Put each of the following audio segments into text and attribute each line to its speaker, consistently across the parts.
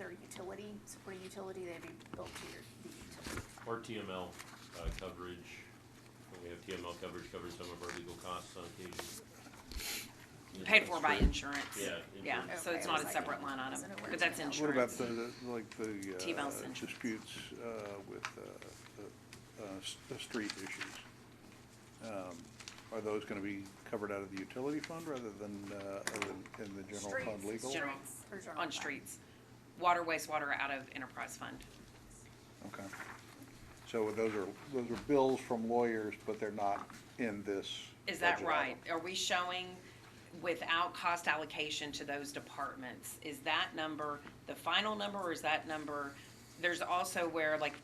Speaker 1: or utility, supporting utility, they'd be built to your, the utility.
Speaker 2: Our TML uh, coverage, when we have TML coverage, covers some of our legal costs on occasion.
Speaker 3: Paid for by
Speaker 2: Insurance.
Speaker 3: insurance.
Speaker 2: Yeah,
Speaker 3: Yeah,
Speaker 2: insurance.
Speaker 3: so
Speaker 1: Okay,
Speaker 3: it's
Speaker 1: I
Speaker 3: not
Speaker 1: was
Speaker 3: a
Speaker 1: like,
Speaker 3: separate line item,
Speaker 1: wasn't aware
Speaker 3: but that's
Speaker 1: of that.
Speaker 3: insurance.
Speaker 4: What about the, the- like the
Speaker 3: T-Mobile
Speaker 4: uh,
Speaker 3: Central.
Speaker 4: disputes uh, with uh, the, uh, s- the street issues? Um, Are those going to be covered out of the utility fund rather than, uh, other than in the general fund
Speaker 1: Streets,
Speaker 4: legal?
Speaker 3: General.
Speaker 1: streets, or general
Speaker 3: On
Speaker 1: fund.
Speaker 3: streets. Water, wastewater out of enterprise fund.
Speaker 4: Okay. So those are, those are bills from lawyers, but they're not in this.
Speaker 3: Is that
Speaker 4: budget
Speaker 3: right?
Speaker 4: item.
Speaker 3: Are we showing without cost allocation to those departments? Is that number the final number or is that number, there's also where like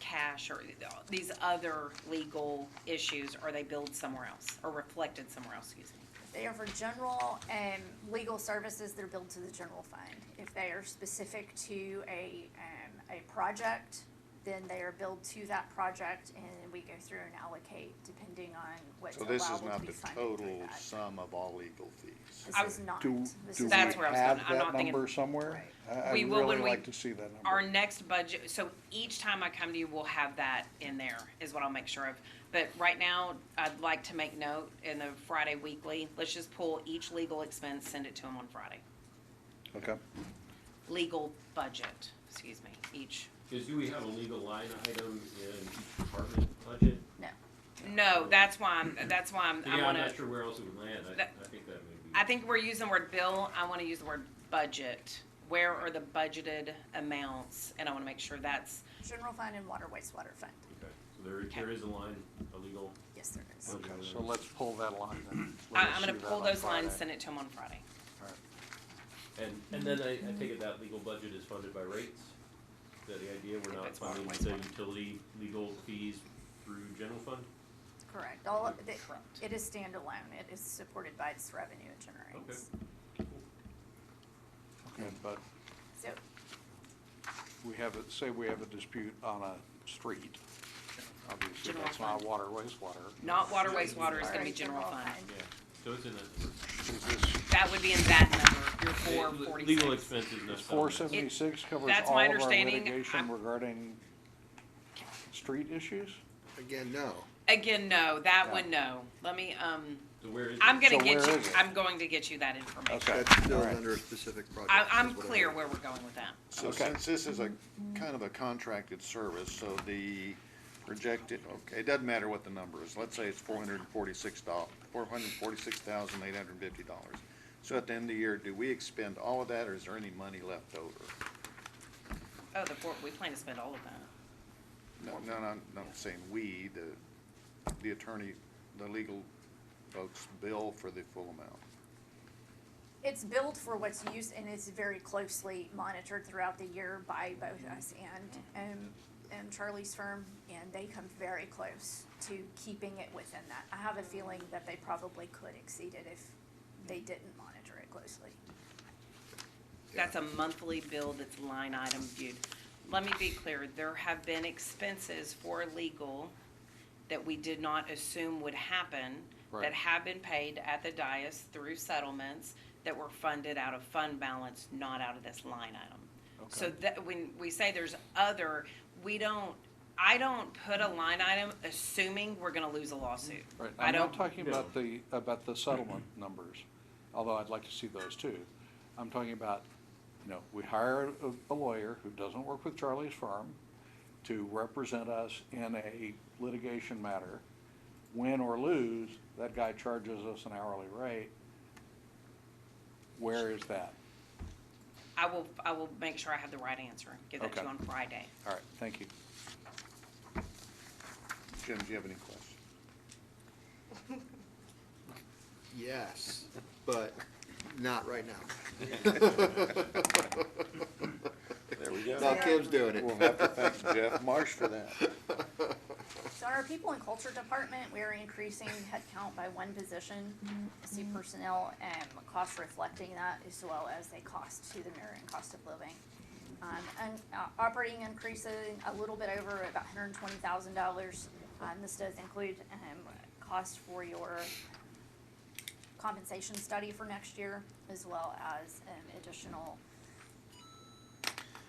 Speaker 3: cash or these other legal issues, are they billed somewhere else or reflected somewhere else, excuse me?
Speaker 1: If They are for general and legal services, they're billed to the general fund. If they are specific to a, um, a project, then they are billed to that project and we go through and allocate depending on what's
Speaker 5: So this is
Speaker 1: allowable to
Speaker 5: not
Speaker 1: be
Speaker 5: the
Speaker 1: funded through
Speaker 5: total
Speaker 1: that.
Speaker 5: sum of all legal fees.
Speaker 3: I-
Speaker 1: This is not.
Speaker 4: Do,
Speaker 1: This
Speaker 4: do we
Speaker 1: is
Speaker 3: That's where I was going.
Speaker 4: have
Speaker 3: I'm
Speaker 4: that
Speaker 3: not thinking-
Speaker 4: number somewhere? I- I
Speaker 3: We will when
Speaker 4: really
Speaker 3: we-
Speaker 4: like to see that number.
Speaker 3: Our next budget, so each time I come to you, we'll have that in there, is what I'll make sure of. But right now, I'd like to make note in the Friday weekly, let's just pull each legal expense, send it to them on Friday.
Speaker 4: Okay.
Speaker 3: Legal budget, excuse me, each.
Speaker 2: Because do we have a legal line item in each department budget?
Speaker 1: No.
Speaker 3: No, that's why I'm, that's why I'm, I
Speaker 2: Yeah, I'm
Speaker 3: wanna,
Speaker 2: not sure where else it would land. I,
Speaker 3: That-
Speaker 2: I think that may be.
Speaker 3: I think we're using the word bill, I wanna use the word budget. Where are the budgeted amounts? And I wanna make sure that's,
Speaker 1: General fund and water wastewater fund.
Speaker 2: Okay, so there, there is a line, a legal.
Speaker 1: Yes, there is.
Speaker 2: budget item.
Speaker 4: So let's pull that line then. Let
Speaker 3: I,
Speaker 4: us
Speaker 3: I'm gonna
Speaker 4: see that
Speaker 3: pull
Speaker 4: on
Speaker 3: those lines,
Speaker 4: Friday.
Speaker 3: send it to them on Friday.
Speaker 4: All right.
Speaker 2: And, and then I,
Speaker 3: Mm-hmm.
Speaker 2: I take it that legal budget is funded by rates? Is that the idea?
Speaker 3: If
Speaker 2: We're not
Speaker 3: it's water,
Speaker 2: funding the
Speaker 3: wastewater.
Speaker 2: utility legal fees through general fund?
Speaker 1: Correct. All of, it,
Speaker 3: Correct.
Speaker 1: it is standalone. It is supported by its revenue it generates.
Speaker 4: Okay, but
Speaker 1: So
Speaker 4: we have, a say we have a dispute on a street, obviously
Speaker 3: General
Speaker 4: that's not
Speaker 3: fund.
Speaker 4: water wastewater.
Speaker 3: Not water, wastewater, it's gonna
Speaker 1: Alright,
Speaker 3: be general
Speaker 1: general
Speaker 3: fund.
Speaker 1: fund.
Speaker 2: Yeah, so it's in that.
Speaker 4: Is this,
Speaker 3: That would be in that number, your four
Speaker 2: number.
Speaker 3: forty-six.
Speaker 2: Legal expenses, no
Speaker 4: is four
Speaker 2: settlement.
Speaker 4: seventy-six covers
Speaker 3: that's
Speaker 4: all
Speaker 3: my
Speaker 4: of our
Speaker 3: understanding.
Speaker 4: litigation
Speaker 3: I'm-
Speaker 4: regarding street issues?
Speaker 5: Again, no.
Speaker 3: Again, no, that
Speaker 4: Yeah.
Speaker 3: one, no. Let me, um,
Speaker 2: So where is
Speaker 3: I'm
Speaker 2: it?
Speaker 3: gonna
Speaker 4: So
Speaker 3: get
Speaker 4: where
Speaker 3: you,
Speaker 4: is it?
Speaker 3: I'm going to get you that information.
Speaker 4: Okay,
Speaker 6: That's
Speaker 4: all
Speaker 6: billed
Speaker 4: right.
Speaker 6: under a specific project.
Speaker 3: I,
Speaker 6: is
Speaker 3: I'm
Speaker 6: what I
Speaker 3: clear
Speaker 6: heard.
Speaker 3: where we're going with that.
Speaker 5: So
Speaker 4: Okay.
Speaker 5: since this is a kind of a contracted service, so the projected, okay, it doesn't matter what the number is. Let's say it's four hundred and forty-six dollars, four hundred and forty-six thousand eight hundred and fifty dollars. So at the end of the year, do we expend all of that or is there any money left over?
Speaker 3: Oh, the four, we plan to spend all of that.
Speaker 5: No, no, no, I'm not saying we, the, the attorney, the legal folks bill for the full amount.
Speaker 1: It's billed for what's used and it's very closely monitored throughout the year by both us and, um, and Charlie's firm. And they come very close to keeping it within that. I have a feeling that they probably could exceed it if they didn't monitor it closely.
Speaker 3: That's a monthly bill that's line item viewed. Let me be clear, there have been expenses for legal that we did not assume would happen, that
Speaker 4: Right.
Speaker 3: have been paid at the dais through settlements that were funded out of fund balance, not out of this line item. So
Speaker 4: Okay.
Speaker 3: that, when we say there's other, we don't, I don't put a line item assuming we're gonna lose a lawsuit.
Speaker 4: Right,
Speaker 3: I
Speaker 4: I'm not
Speaker 3: don't,
Speaker 4: talking
Speaker 2: No.
Speaker 4: about the, about the settlement numbers, although I'd like to see those too. I'm talking about, you know, we hire a- a lawyer who doesn't work with Charlie's firm to represent us in a litigation matter. Win or lose, that guy charges us an hourly rate. Where is that?
Speaker 3: I will, I will make sure I have the right answer, and give that to you
Speaker 4: Okay.
Speaker 3: on Friday.
Speaker 4: All right, thank you.
Speaker 5: Jim, do you have any questions?
Speaker 6: Yes, but not right now.
Speaker 5: There we go.
Speaker 6: No, Kim's doing it.
Speaker 5: We'll have to thank Jeff Marsh for that.
Speaker 1: So our people and culture department, we are increasing headcount by one position. I See personnel and cost reflecting that as well as a cost to the mayor and cost of living. Um, and uh, operating increasing a little bit over about hundred and twenty thousand dollars. Um, this does include, um, cost for your compensation study for next year as well as, um, additional